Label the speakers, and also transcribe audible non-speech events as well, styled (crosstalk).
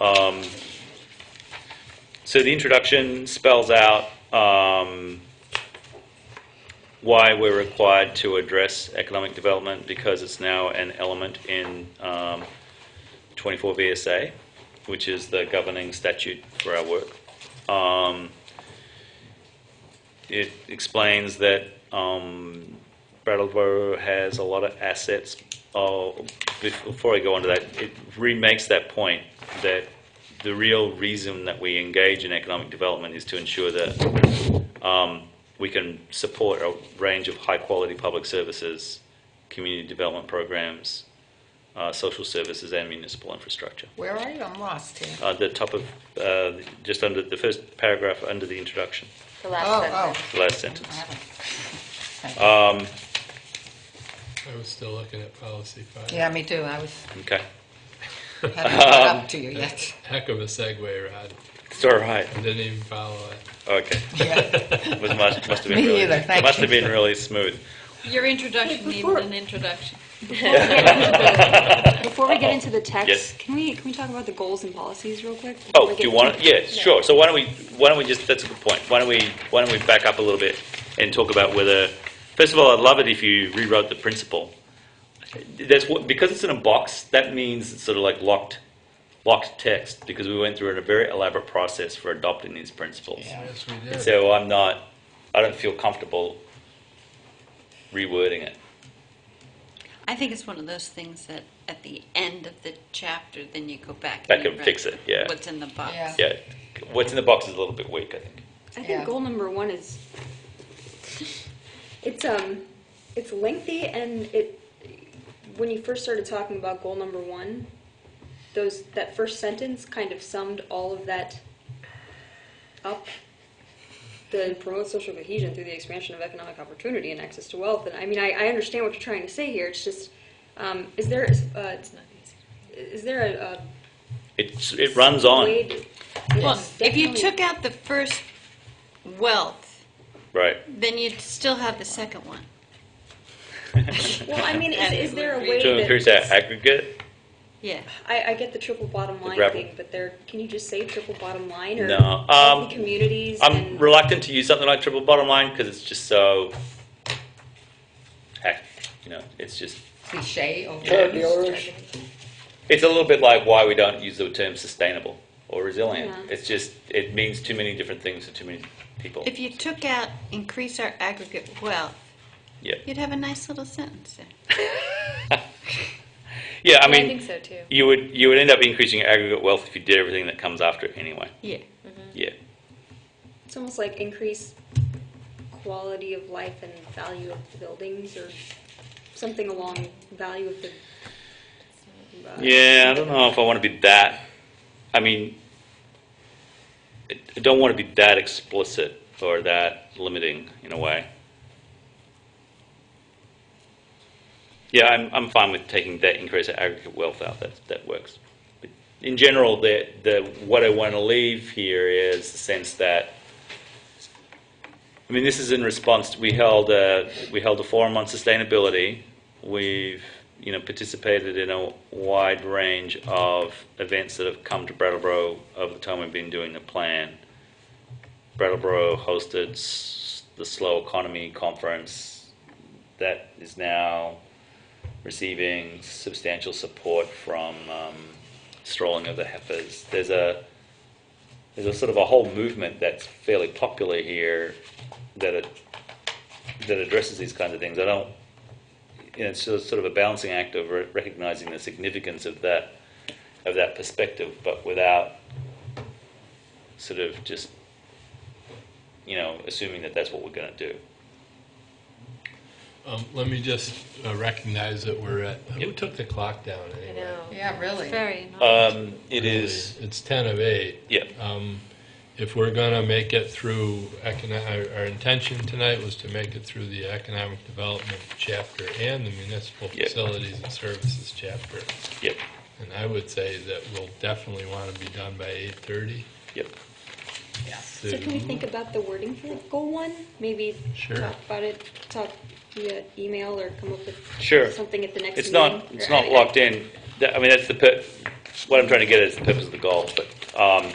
Speaker 1: Um, So the introduction spells out um, why we're required to address economic development because it's now an element in um, 24 VSA, which is the governing statute for our work. Um, It explains that um, Brattleboro has a lot of assets. Oh, bef- Before I go on to that, it remakes that point that the real reason that we engage in economic development is to ensure that um, we can support a range of high-quality public services, community development programs, uh, social services, and municipal infrastructure.
Speaker 2: Where are you? I'm lost here.
Speaker 1: Uh, the top of, uh, just under the first paragraph under the introduction,
Speaker 3: The last
Speaker 2: Oh,
Speaker 3: sentence.
Speaker 1: the last
Speaker 2: I
Speaker 1: sentence.
Speaker 2: haven't-
Speaker 4: I was still looking at policy five.
Speaker 2: Yeah, me too. I was,
Speaker 1: Okay,
Speaker 2: haven't caught up to you yet.
Speaker 4: Heck of a segue, Rod.
Speaker 1: it's all right.
Speaker 4: I didn't even follow it.
Speaker 1: Okay,
Speaker 2: Yeah.
Speaker 1: it was must, must have been
Speaker 2: (laughs) Me
Speaker 1: really,
Speaker 2: either, thank
Speaker 1: must
Speaker 2: you.
Speaker 1: have been really smooth.
Speaker 5: Your introduction needed an introduction.
Speaker 6: Before we get into the
Speaker 1: Yes.
Speaker 6: text, can we, can we talk about the goals and policies real quick? before
Speaker 1: Oh,
Speaker 6: we
Speaker 1: do
Speaker 6: get
Speaker 1: you want,
Speaker 6: into-
Speaker 1: yeah, sure. So why don't we, why don't we just, that's a good point. Why don't we, why don't we back up a little bit and talk about whether, first of all, I'd love it if you rewrote the principle. That's what, because it's in a box, that means it's sort of like locked, locked text, because we went through a very elaborate process for adopting these principles.
Speaker 4: Yes, we did.
Speaker 1: So I'm not, I don't feel comfortable rewording it.
Speaker 5: I think it's one of those things that at the end of the chapter, then you go back.
Speaker 1: Back
Speaker 5: you
Speaker 1: and
Speaker 5: read
Speaker 1: fix it, yeah.
Speaker 5: What's in the box.
Speaker 2: Yeah.
Speaker 1: Yeah, what's in the box is a little bit weak, I think.
Speaker 6: I
Speaker 2: Yeah.
Speaker 6: think goal number one is, it's, um, it's lengthy and it, when you first started talking about goal number one, those, that first sentence kind of summed all of that up. The promote social cohesion through the expansion of economic opportunity and access to wealth. And I mean, I, I understand what you're trying to say here. It's just, um, is there, uh,
Speaker 5: It's not easy.
Speaker 6: is there a, a
Speaker 1: It's, it runs on,
Speaker 6: Wade-
Speaker 5: Well,
Speaker 6: Yes,
Speaker 5: if you
Speaker 6: definitely.
Speaker 5: took out the first wealth,
Speaker 1: right.
Speaker 5: then you'd still have the second one.
Speaker 6: Well, I mean, is, is there a way
Speaker 1: To increase that
Speaker 6: that,
Speaker 1: aggregate,
Speaker 5: Yeah.
Speaker 6: I, I get the triple bottom line
Speaker 1: grapple.
Speaker 6: thing, but there, can you just say triple bottom line or?
Speaker 1: No,
Speaker 6: healthy
Speaker 1: um,
Speaker 6: Communities
Speaker 1: I'm
Speaker 6: and,
Speaker 1: reluctant to use something like triple bottom line because it's just so, heck, you know, it's just,
Speaker 2: Cliche over.
Speaker 1: it's a little bit like why we don't use the term sustainable or resilient.
Speaker 6: Yeah.
Speaker 1: It's just, it means too many different things to too many people.
Speaker 5: If you took out increase our aggregate wealth,
Speaker 1: Yeah,
Speaker 5: you'd have a nice little sentence there.
Speaker 1: yeah. I
Speaker 3: Yeah, I
Speaker 1: mean,
Speaker 3: think so too.
Speaker 1: you would you would end up increasing your aggregate wealth if you did everything that comes after it anyway.
Speaker 5: Yeah.
Speaker 1: Yeah,
Speaker 6: it's almost like increase quality of life and value of the buildings or something along value of the. uh,
Speaker 1: yeah. I don't know if I want to be that. I mean, I I don't want to be that explicit or that limiting in a way. Yeah, I'm, I'm fine with taking that increase of aggregate wealth out. That that works. But in general, the the what I want to leave here is the sense that. I mean, this is in response. To, we held a we held a forum on sustainability. We've you know participated in a wide range of events that have come to Brattleboro over the time we've been doing the plan. Brattleboro hosted s- the Slow Economy Conference that is now receiving substantial support from um, Strolling of the Heifers. There's a there's a sort of a whole movement that's fairly popular here that it, that addresses these kinds of things. I don't, you know, it's sort of- sort of a balancing act of re- recognizing the significance of that of that perspective, but without sort of just you know assuming that that's what we're going to do.
Speaker 4: Um, let me just uh, recognize that we're at, who
Speaker 1: Yep.
Speaker 4: took the clock down
Speaker 3: I
Speaker 4: anyway?
Speaker 3: know.
Speaker 2: Yeah, really.
Speaker 5: Very nice.
Speaker 1: Um, it is,
Speaker 4: It's ten of eight.
Speaker 1: yeah,
Speaker 4: Um, if we're gonna make it through econo, our, our intention tonight was to make it through the economic development chapter and the municipal
Speaker 1: Yep.
Speaker 4: facilities and services chapter.
Speaker 1: yep,
Speaker 4: And I would say that we'll definitely wanna be done by eight thirty.
Speaker 1: yep.
Speaker 2: Yes.
Speaker 6: So can we think about the wording for goal one? Maybe
Speaker 4: Sure.
Speaker 6: talk about it, talk via email or come up
Speaker 1: Sure.
Speaker 6: with something at the next meeting?
Speaker 1: It's not, it's not locked in. That- I mean, that's the, per- what I'm trying to get at is the purpose of the goal, but, um,